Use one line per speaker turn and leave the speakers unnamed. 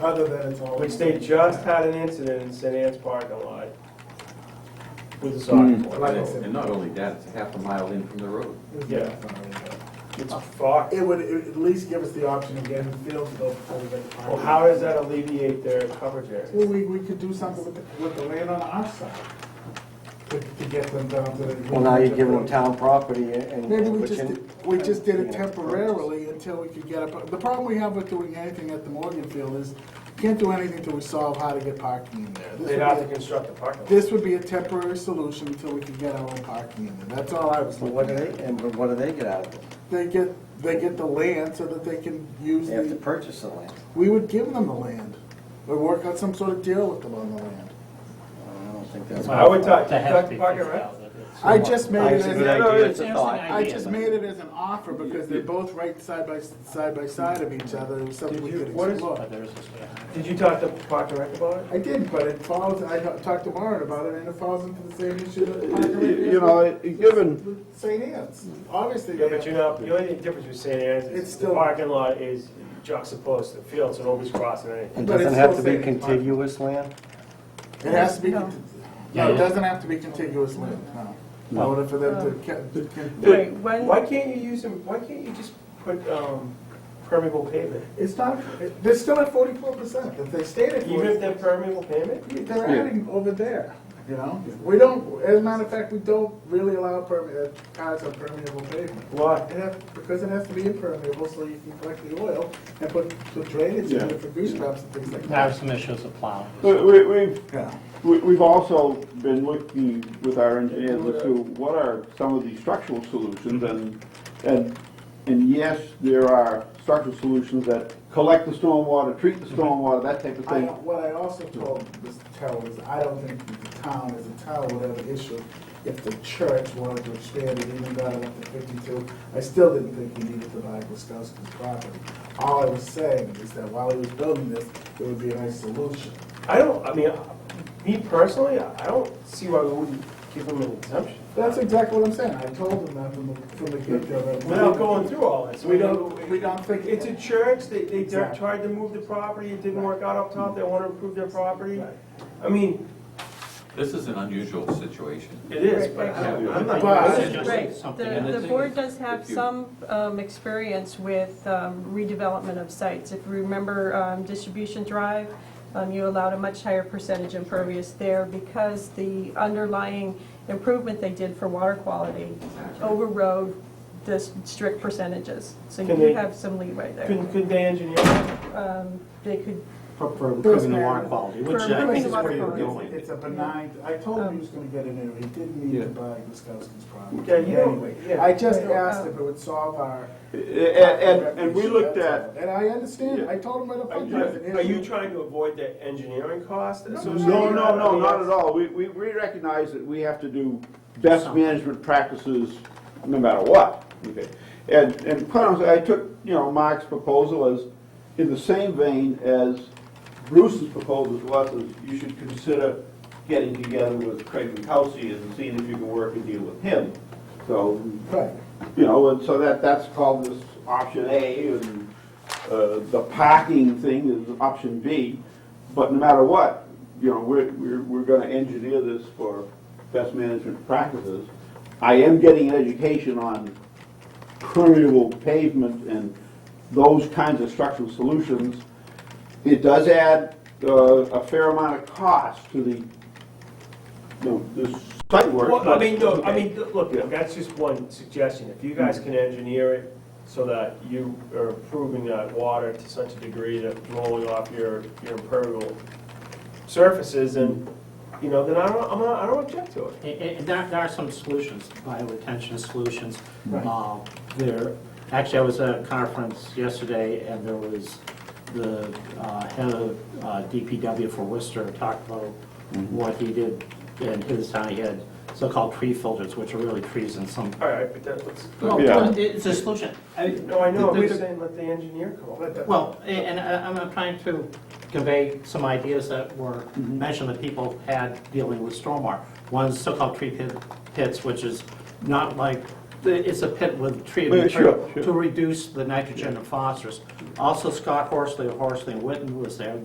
Other than it's always.
Which they just had an incident in St. Anne's parking lot with a soccer
Hmm.
Like I
ball.
said.
And not only that, it's a half a mile in from the road.
Yeah. It's fucked.
It would at least give us the option of getting Phil to go before we make.
Well, how does that alleviate their coverage area?
Well, we, we could do something with, the- with the land on our side to, to get them down to the.
Well, now you're giving them town property and.
Maybe we
which
just,
in-
did- we just did it
you know,
temporarily until we could get up. The problem we have with doing anything at the Morgan Field is you can't do anything till we solve how to get parking in there. This
They'd
would
have
be
to
a-
construct a parking lot.
This would be a temporary solution until we can get our own parking in there. That's all I was
But what do
looking
they,
at.
and but what do they get out of it?
They get, they get the land so that they can use
They have to
the,
purchase the land.
we would give them the land. Or work out some sort of deal with them on the land.
I don't think that's.
I would talk,
To have
talk
to be
parking,
figured
right?
out, that it's-
I just made it
It's a
as,
good
a-
idea, it's
it's
a
an
thought.
idea.
I just made it as an offer because they're both right side by, side by side of each other. It was something
Did
we
you-
could
what is-
explore.
But there is this way around.
Did you talk to Park and Rec about it?
I did, but it falls, I talked to Warren about it and it falls into the same issue that.
You know, given,
St. Anne's, obviously.
Yeah,
they
but you
have-
know, the only difference with St. Anne's
It's
is the
still-
parking lot is juxtaposed to the field, so nobody's crossing anything.
And
But
doesn't
it's
have to
still
be
saying it's fine.
contiguous land?
It has to be, conti-
Yeah,
no, it
yeah.
doesn't have to be contiguous land, no. In order for them to, ca- to con-
Wait, Why can't you use them, why can't you just put, um, permeable pavement?
it's not, it- they're still at forty-four percent, if they stayed at
Even if
forty,
they're permeable pavement?
they're adding over there, you know? We don't, as a matter of fact, we don't really allow perme, uh, cars on permeable pavement.
Why?
It has, because it has to be impermeable, so you can collect the oil and put the drainage in
Yeah.
it for goose traps and things like
There are
that.
some issues of plowing.
we, we- we've,
Yeah.
we- we've also been looking with our engineers as to what are some of the structural solutions and, and, and yes, there are structural solutions that collect the stormwater, treat the stormwater, that type of
I,
thing.
what I also told Mr. Terrell is I don't think that the town as a town would have an issue if the church wanted to expand it even better up to fifty-two. I still didn't think he needed to buy Guskowski's property. All I was saying is that while he was building this, it would be a nice solution.
I don't, I mean, me personally, I don't see why we wouldn't give them an exemption.
That's exactly what I'm saying. I told him that from the, from the get-go. that-
Without going through all this.
We don't, we don't think.
It's a church, they, they
Exactly.
tried to move the property, it didn't work out up top, they wanna improve their property.
Right.
I mean,
This is an unusual situation.
it is, but I'm I'm not.
But-
it's just-
Right,
something in
the
the, the
thing
board
is,
does have
if you-
some, um, experience with um, redevelopment of sites. If you remember, um, Distribution Drive, um, you allowed a much higher percentage impervious there because the underlying improvement they did for water quality overrode the s- strict percentages. So
Can
you
they-
have some leeway there.
Couldn't, couldn't they engineer it?
Um, they could,
For, for improving the water quality, which
For
I
improving
think
the
is where
water
you're
quality.
going.
It's a benign, I told him he was gonna get in there, he didn't need to buy Guskowski's property.
Yeah, you don't-
Anyway,
yeah.
I just asked if it would solve our.
And, and- and we looked at,
And I understand,
Yeah.
I told him right up front.
Are you trying to avoid the engineering cost associated?
no, no, no, not at all. We, we, we recognize that we have to do best management practices no matter what. Okay. And, and quite honestly, I took, you know, Mark's proposal as, in the same vein as Bruce's proposal to us, is you should consider getting together with Craig Kelsey and seeing if you can work a deal with him. So,
Right,
you know, and so that, that's called this option A, and uh, the parking thing is option B. But no matter what, you know, we're, we're, we're gonna engineer this for best management practices. I am getting an education on permeable pavement and those kinds of structural solutions. It does add uh, a fair amount of cost to the, you know, the site work.
Well, I
but-
mean, no, I mean, look, that's just one suggestion. If you guys can engineer it so that you are improving that water to such a degree that rolling off your, your impermeable surfaces and, you know, then I don't, I'm not, I don't object to it.
I- I- There are- there are some solutions, bioretention solutions.
Right.
Uh, There, actually, I was at a conference yesterday, and there was the uh, head of uh, DPW for Worcester talked about
Mm-hmm.
what he did in his town. He had so-called tree filters, which are really trees in some,
All right, but that looks,
Oh,
well,
Yeah.
it's a solution. I-
no, I know, I'm
There's-
just saying let the engineer come up with it.
Well, a- and I- I'm I'm trying to convey some ideas that were
Mm-hmm.
mentioned that people had dealing with stormwater. One's so-called tree pit- pits, which is not like, it's a pit with tree
Yeah, sure,
material to reduce the nitrogen and phosphorus. Also Scott Horsley of Horsley and Witten was there.